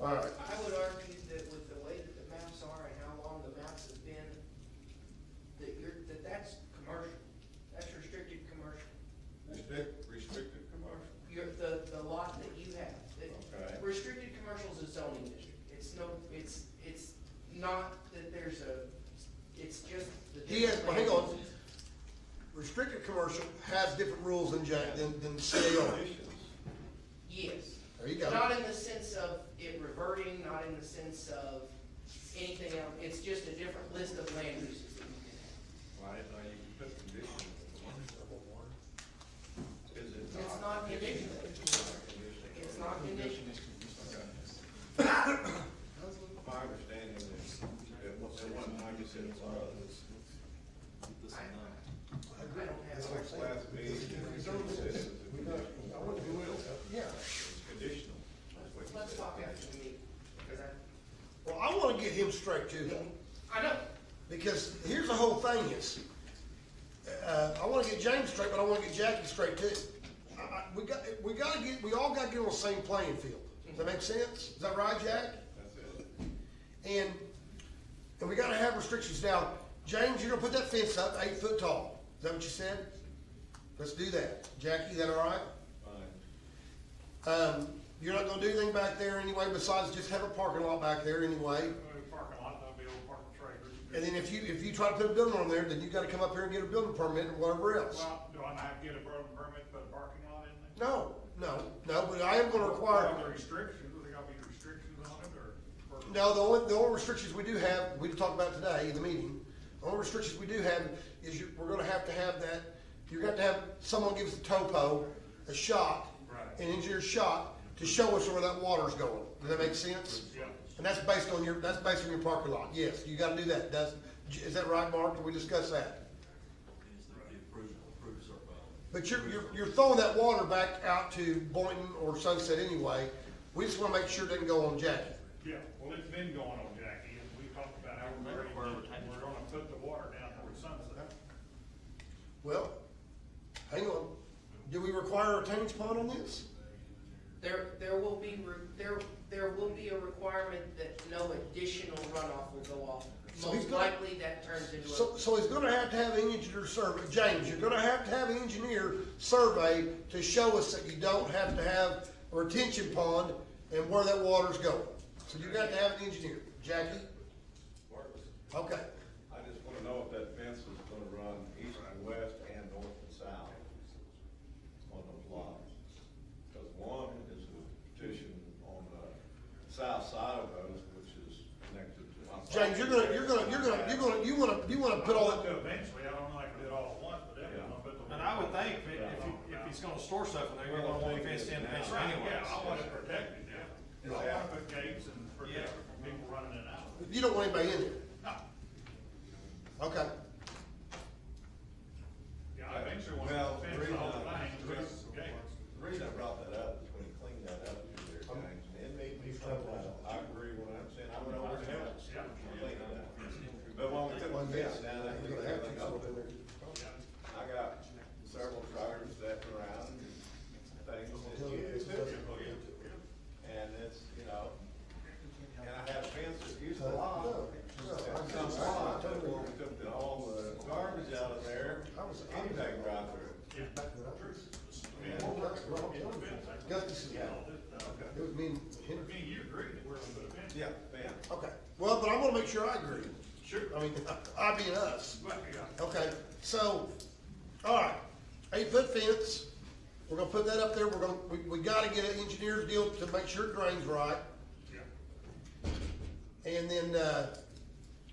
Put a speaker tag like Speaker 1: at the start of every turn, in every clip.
Speaker 1: All right,
Speaker 2: I would argue that with the way that the maps are and how long the maps have been, that you're, that that's commercial. That's restricted commercial.
Speaker 3: Restrict, restricted commercial.
Speaker 2: Your, the, the lot that you have. that-
Speaker 3: Okay.
Speaker 2: Restricted commercial is a zoning district. It's no, it's, it's not that there's a, it's just the.
Speaker 1: he has, well, hang on,
Speaker 2: different land uses.
Speaker 1: restricted commercial has different rules than Jack, than, than CAR.
Speaker 3: Conditions.
Speaker 2: Yes.
Speaker 1: There you go.
Speaker 2: Not in the sense of it reverting, not in the sense of anything else. It's just a different list of land uses that you can have.
Speaker 3: Why, now you can put conditions. Is it not?
Speaker 2: It's not conditional.
Speaker 3: It's not conditional.
Speaker 2: It's not conditional.
Speaker 3: My understanding is, at one, at one time you said it was,
Speaker 2: I, I don't have.
Speaker 3: it's like last meeting, you said it was a conditional. I wouldn't do it. Yeah. It's conditional. That's what you
Speaker 2: Let's
Speaker 3: said.
Speaker 2: talk after the meeting, because I,
Speaker 1: Well, I wanna get him straight too, though.
Speaker 2: I know,
Speaker 1: Because here's the whole thing is, uh, I wanna get James straight, but I wanna get Jackie straight too. I, I, we got, we gotta get, we all gotta get on the same playing field. Does that make sense? Is that right, Jack?
Speaker 3: That's it.
Speaker 1: And, and we gotta have restrictions. Now, James, you're gonna put that fence up eight foot tall. Is that what you said? Let's do that. Jackie, is that all right?
Speaker 3: Fine.
Speaker 1: Um, you're not gonna do anything back there anyway besides just have a parking lot back there anyway.
Speaker 4: Go to the parking lot, that'll be old parking trailers.
Speaker 1: And then if you, if you try to put a building on there, then you gotta come up here and get a building permit or whatever else.
Speaker 4: Well, do I not get a building permit for the parking lot in there?
Speaker 1: No, no, no, but I am gonna require,
Speaker 4: Are there restrictions, are there gonna be restrictions on it, or? or-
Speaker 1: no, the only, the only restrictions we do have, we talked about today in the meeting. The only restrictions we do have is you, we're gonna have to have that, you're gonna have to have, someone give us a topo, a shot,
Speaker 4: Right.
Speaker 1: an engineer's shot, to show us where that water's going. Does that make sense?
Speaker 4: Yeah,
Speaker 1: And that's based on your, that's based on your parking lot, yes, you gotta do that, that's, is that right, Mark, did we discuss that?
Speaker 5: is that the approval, approves our bylaw.
Speaker 1: But you're, you're, you're throwing that water back out to Boynton or Sunset anyway, we just wanna make sure it doesn't go on Jackie.
Speaker 4: yeah, well, it's been going on, Jackie, and we talked about how we're gonna, we're gonna put the water down toward Sunset.
Speaker 1: Well, hang on, do we require a retention pond on this?
Speaker 2: there, there will be, re- there, there will be a requirement that no additional runoff will go off.
Speaker 1: So he's
Speaker 2: Most
Speaker 1: gonna-
Speaker 2: likely that turns into
Speaker 1: So,
Speaker 2: a,
Speaker 1: so he's gonna have to have an engineer survey, James, you're gonna have to have an engineer survey to show us that you don't have to have a retention pond and where that water's going. So you got to have an engineer, Jackie,
Speaker 3: Works.
Speaker 1: okay,
Speaker 3: I just wanna know if that fence is gonna run east and west and north and south on those lots. Cause one is a petition on the south side of those, which is connected to. my
Speaker 1: James, you're gonna, you're gonna, you're gonna, you're gonna, you wanna, you wanna put all that.
Speaker 4: Eventually, I don't know, I can do it all at once, but then I'm gonna put the.
Speaker 6: And I would think if, if, he- if he's gonna store stuff in there, you're gonna want to fenced in
Speaker 4: That's
Speaker 6: fence
Speaker 4: right,
Speaker 6: anyway.
Speaker 4: yeah, I want it protected, yeah. I wanna put gates and protect it from people running it out.
Speaker 1: You don't want anybody in there.
Speaker 4: No,
Speaker 1: Okay.
Speaker 4: yeah, I eventually want
Speaker 3: Well,
Speaker 4: to
Speaker 3: the
Speaker 4: fence
Speaker 3: reason
Speaker 4: all
Speaker 3: I-
Speaker 4: the things, with gates.
Speaker 3: The reason I brought that up is when he cleaned that up through there, James, and it made me feel like, I agree with what I'm saying, I went over to him.
Speaker 4: Yeah.
Speaker 3: But when we took one fence down, I think everything open. I got several drivers that were around and things that you do. And it's, you know, and I have fans that use the lot. And some lot, that will took the- all the garbage out of there, anything right through.
Speaker 4: Yeah.
Speaker 1: Gus, is- it was me and
Speaker 4: I
Speaker 1: him.
Speaker 4: mean, you agree that we're gonna put a fence?
Speaker 3: Yeah, fence.
Speaker 1: Okay, well, but I wanna make sure I agree.
Speaker 4: Sure.
Speaker 1: I mean, I being us.
Speaker 4: But, yeah,
Speaker 1: Okay, so, all right, eight foot fence, we're gonna put that up there, we're gonna, we, we gotta get an engineer's deal to make sure it drains right.
Speaker 4: yeah.
Speaker 1: And then, uh,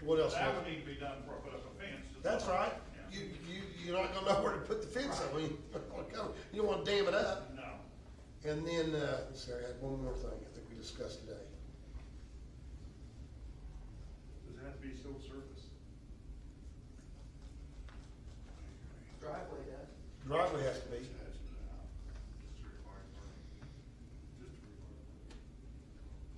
Speaker 1: what else?
Speaker 4: That would need to be done before I put up a fence.
Speaker 1: That's right,
Speaker 4: Yeah.
Speaker 1: you, you, you're not gonna know where to put the fence up, I mean, oh you don't wanna dam it up.
Speaker 4: No,
Speaker 1: And then, uh, sorry, I had one more thing I think we discussed today.
Speaker 4: does it have to be still surface?